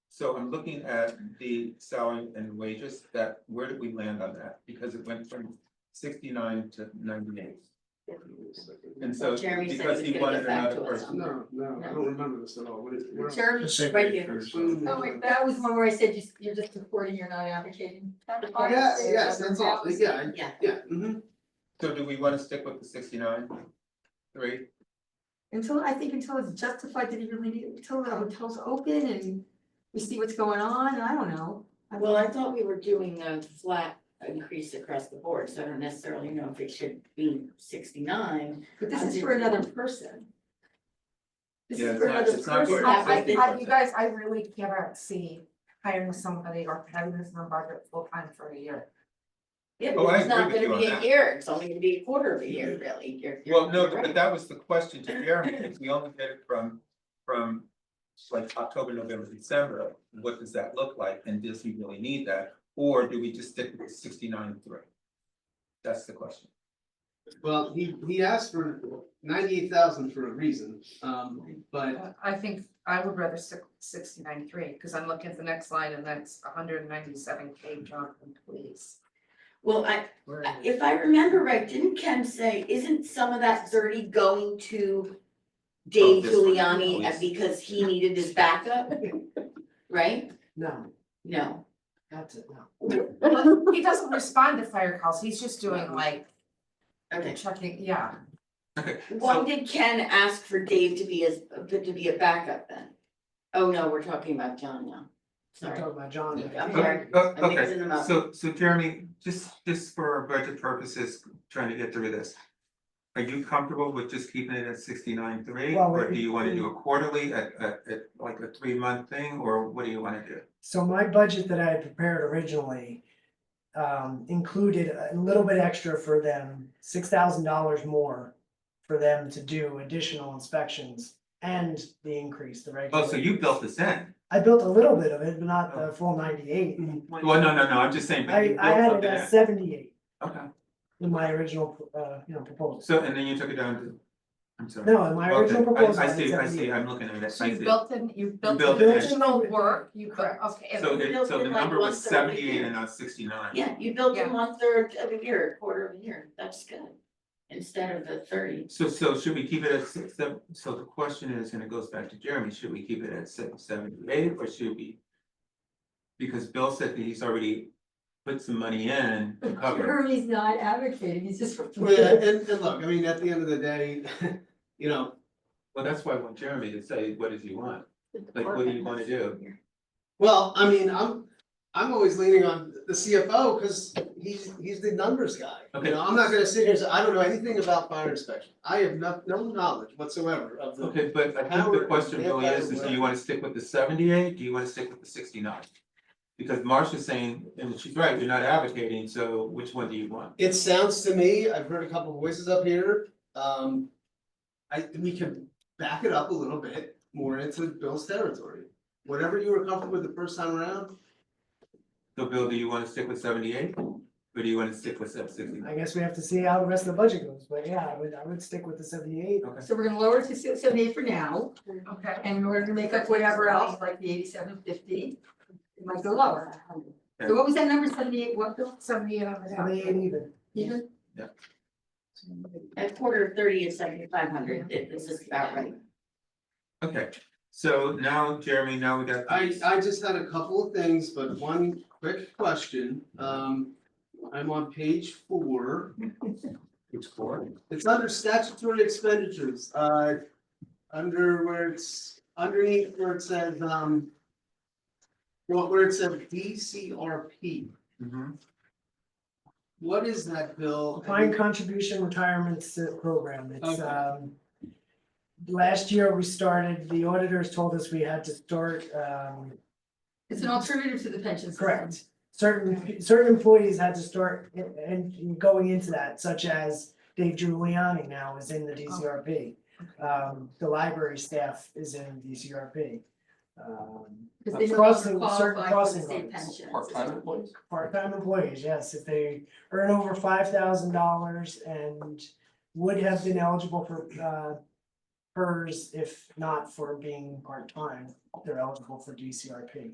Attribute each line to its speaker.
Speaker 1: So I'm looking at the salary and wages, that, where did we land on that? Because it went from sixty-nine to ninety-eight. And so,
Speaker 2: Jeremy said
Speaker 1: because
Speaker 2: he's
Speaker 1: he
Speaker 2: gonna
Speaker 1: wanted
Speaker 2: get back
Speaker 1: another
Speaker 2: to us
Speaker 1: person,
Speaker 3: No, no, I don't remember this at all, what is? where-
Speaker 2: Jeremy, right here. Mm,
Speaker 3: Oh,
Speaker 4: wait,
Speaker 2: That was one where I said you- you're just supporting, you're not advocating.
Speaker 3: Yeah, yes, that's all, yeah, I-
Speaker 2: Yeah.
Speaker 3: yeah, mm-hmm,
Speaker 1: so do we wanna stick with the sixty-nine? Three,
Speaker 4: Until, I think until it's justified that even leave, until the hotel's open and we see what's going on, I don't know.
Speaker 2: Well, I thought we were doing a flat increase across the board, so I don't necessarily know if it should be sixty-nine.
Speaker 4: But this is for another person. This
Speaker 1: Yeah,
Speaker 4: is
Speaker 1: it's
Speaker 4: for
Speaker 1: not-
Speaker 4: another
Speaker 1: it's not for an
Speaker 4: person.
Speaker 5: I- I,
Speaker 1: existing
Speaker 5: I,
Speaker 1: person.
Speaker 5: you guys, I really cannot see hiring somebody or having this on budget full time for a year.
Speaker 2: Yeah,
Speaker 1: Oh, I
Speaker 2: but it's not
Speaker 1: agree with
Speaker 2: gonna
Speaker 1: you
Speaker 2: be
Speaker 1: on
Speaker 2: a
Speaker 1: that. Mm-hmm.
Speaker 2: year, it's only gonna be a quarter of a year, really, you're, you're.
Speaker 1: well, no,
Speaker 2: you're
Speaker 1: but
Speaker 2: right.
Speaker 1: that was the question to Jeremy, if we only get it from, from like October, November, December, what does that look like, and does he really need that? Or do we just stick with the sixty-nine and three? That's the question.
Speaker 3: well, he, he asked for ninety-eight thousand for a reason, um, but,
Speaker 5: Uh, I think I would rather six, sixty nine three, cause I'm looking at the next line and that's hundred and ninety seven K job and police.
Speaker 2: Well, I,
Speaker 1: Where
Speaker 2: I-
Speaker 1: is it?
Speaker 2: if I remember right, didn't Ken say, isn't some of that thirty going to Dave
Speaker 1: Oh, this one,
Speaker 2: Giuliani
Speaker 1: please.
Speaker 2: uh, because he needed his backup? Right?
Speaker 3: no,
Speaker 2: No.
Speaker 3: that's it, no.
Speaker 5: Well, He doesn't respond to fire calls, he's just doing like
Speaker 2: Okay.
Speaker 5: checking, yeah,
Speaker 2: Why did Ken ask for Dave to be as, to be a backup then? Oh, no, we're talking about John now.
Speaker 3: I'm
Speaker 2: Sorry.
Speaker 3: talking about John.
Speaker 2: Yeah. I'm sorry.
Speaker 1: Okay, uh,
Speaker 2: I'm
Speaker 1: okay,
Speaker 2: mixing them up.
Speaker 1: so, so Jeremy, just, just for our budget purposes, trying to get through this. Are you comfortable with just keeping it at sixty-nine three,
Speaker 6: Well,
Speaker 1: or
Speaker 6: it-
Speaker 1: do you wanna do a quarterly, at, at, at like a three-month thing, or what do you wanna do?
Speaker 6: So my budget that I had prepared originally um included a little bit extra for them, six thousand dollars more for them to do additional inspections and the increase, the regular.
Speaker 1: Oh, so you built this in,
Speaker 6: I built a little bit of it, but not the full ninety-eight.
Speaker 1: well, no, no, no, I'm just saying, but you
Speaker 6: I I
Speaker 1: built
Speaker 6: had it
Speaker 1: something
Speaker 6: at
Speaker 1: in,
Speaker 6: seventy-eight
Speaker 1: okay,
Speaker 6: in my original, uh, you know, proposal.
Speaker 1: so, and then you took it down to, I'm sorry.
Speaker 6: No, in my original
Speaker 1: Okay, I-
Speaker 6: proposal, I
Speaker 1: I
Speaker 6: had
Speaker 1: see, I see,
Speaker 6: 78.
Speaker 1: I'm looking at it, I
Speaker 5: so you
Speaker 1: see,
Speaker 5: built in, you built in
Speaker 1: built it in.
Speaker 5: additional work, you could, okay. and-
Speaker 1: so
Speaker 2: you
Speaker 1: it,
Speaker 2: built
Speaker 1: so
Speaker 2: it
Speaker 1: the
Speaker 2: like
Speaker 1: number was
Speaker 2: once every
Speaker 1: seventy-eight
Speaker 2: year.
Speaker 1: and not sixty-nine.
Speaker 2: Yeah, you built
Speaker 5: Yeah.
Speaker 2: in one third of a year, a quarter of a year, that's good, instead of the thirty.
Speaker 1: So, so should we keep it at six, seven, so the question is, and it goes back to Jeremy, should we keep it at six, seven, eight, or should we? Because Bill said that he's already put some money in to cover,
Speaker 4: Jeremy's not advocating, he's just.
Speaker 3: Well, and, and look, I mean, at the end of the day, you know,
Speaker 1: well, that's why I want Jeremy to say, what does he want? Like, what do you wanna do?
Speaker 3: well, I mean, I'm, I'm always leaning on the CFO, cause he's, he's the numbers guy. You
Speaker 1: Okay.
Speaker 3: know, I'm not gonna sit here and say, I don't know anything about fire inspection, I have no, no knowledge whatsoever of the.
Speaker 1: Okay, but I think the question really is, is do you wanna stick with the seventy-eight, do you wanna stick with the sixty-nine? Because Marcia's saying, and she's right, you're not advocating, so which one do you want?
Speaker 3: It sounds to me, I've heard a couple voices up here, um. I, we can back it up a little bit more into Bill's territory. Whatever you were comfortable with the first time around,
Speaker 1: So Bill, do you wanna stick with seventy-eight, or do you wanna stick with sixty-nine?
Speaker 6: I guess we have to see how the rest of the budget goes, but yeah, I would, I would stick with the seventy-eight.
Speaker 1: Okay.
Speaker 4: So we're gonna lower it to six seventy-eight for now,
Speaker 5: Okay,
Speaker 4: and we're gonna make up whatever else, like the eighty-seven fifty, it might go lower. So what was that number, seventy-eight, what, Bill?
Speaker 5: somebody, uh,
Speaker 6: Seventy-eight even.
Speaker 4: Even?
Speaker 2: A quarter of thirty is seventy-five hundred, this is about right.
Speaker 1: Okay, so now Jeremy, now we got.
Speaker 3: I
Speaker 1: these.
Speaker 3: I just had a couple of things, but one quick question, um. I'm on page four,
Speaker 1: It's four.
Speaker 3: it's under statutory expenditures, uh. Under where it's underneath where it says, um. Well, where it says DCRP,
Speaker 1: Mhm.
Speaker 3: what is that, Bill?
Speaker 6: Defined contribution retirement S- program, it's
Speaker 3: Okay.
Speaker 6: um. Last year, we started, the auditors told us we had to start um,
Speaker 4: It's an alternative to the pension system.
Speaker 6: correct. Certain, certain employees had to start in- in going into that, such as Dave Giuliani now is in the DCRP. Um, the library staff is in DCRP. Um,
Speaker 4: Cause they no
Speaker 6: Crossing-
Speaker 4: longer
Speaker 6: certain
Speaker 4: qualify for
Speaker 6: crossing
Speaker 4: the state
Speaker 6: guards.
Speaker 4: pension.
Speaker 1: Part-time employees?
Speaker 6: part-time employees, yes, if they earn over five thousand dollars and would have been eligible for uh PERS if not for being part-time, they're eligible for DCRP.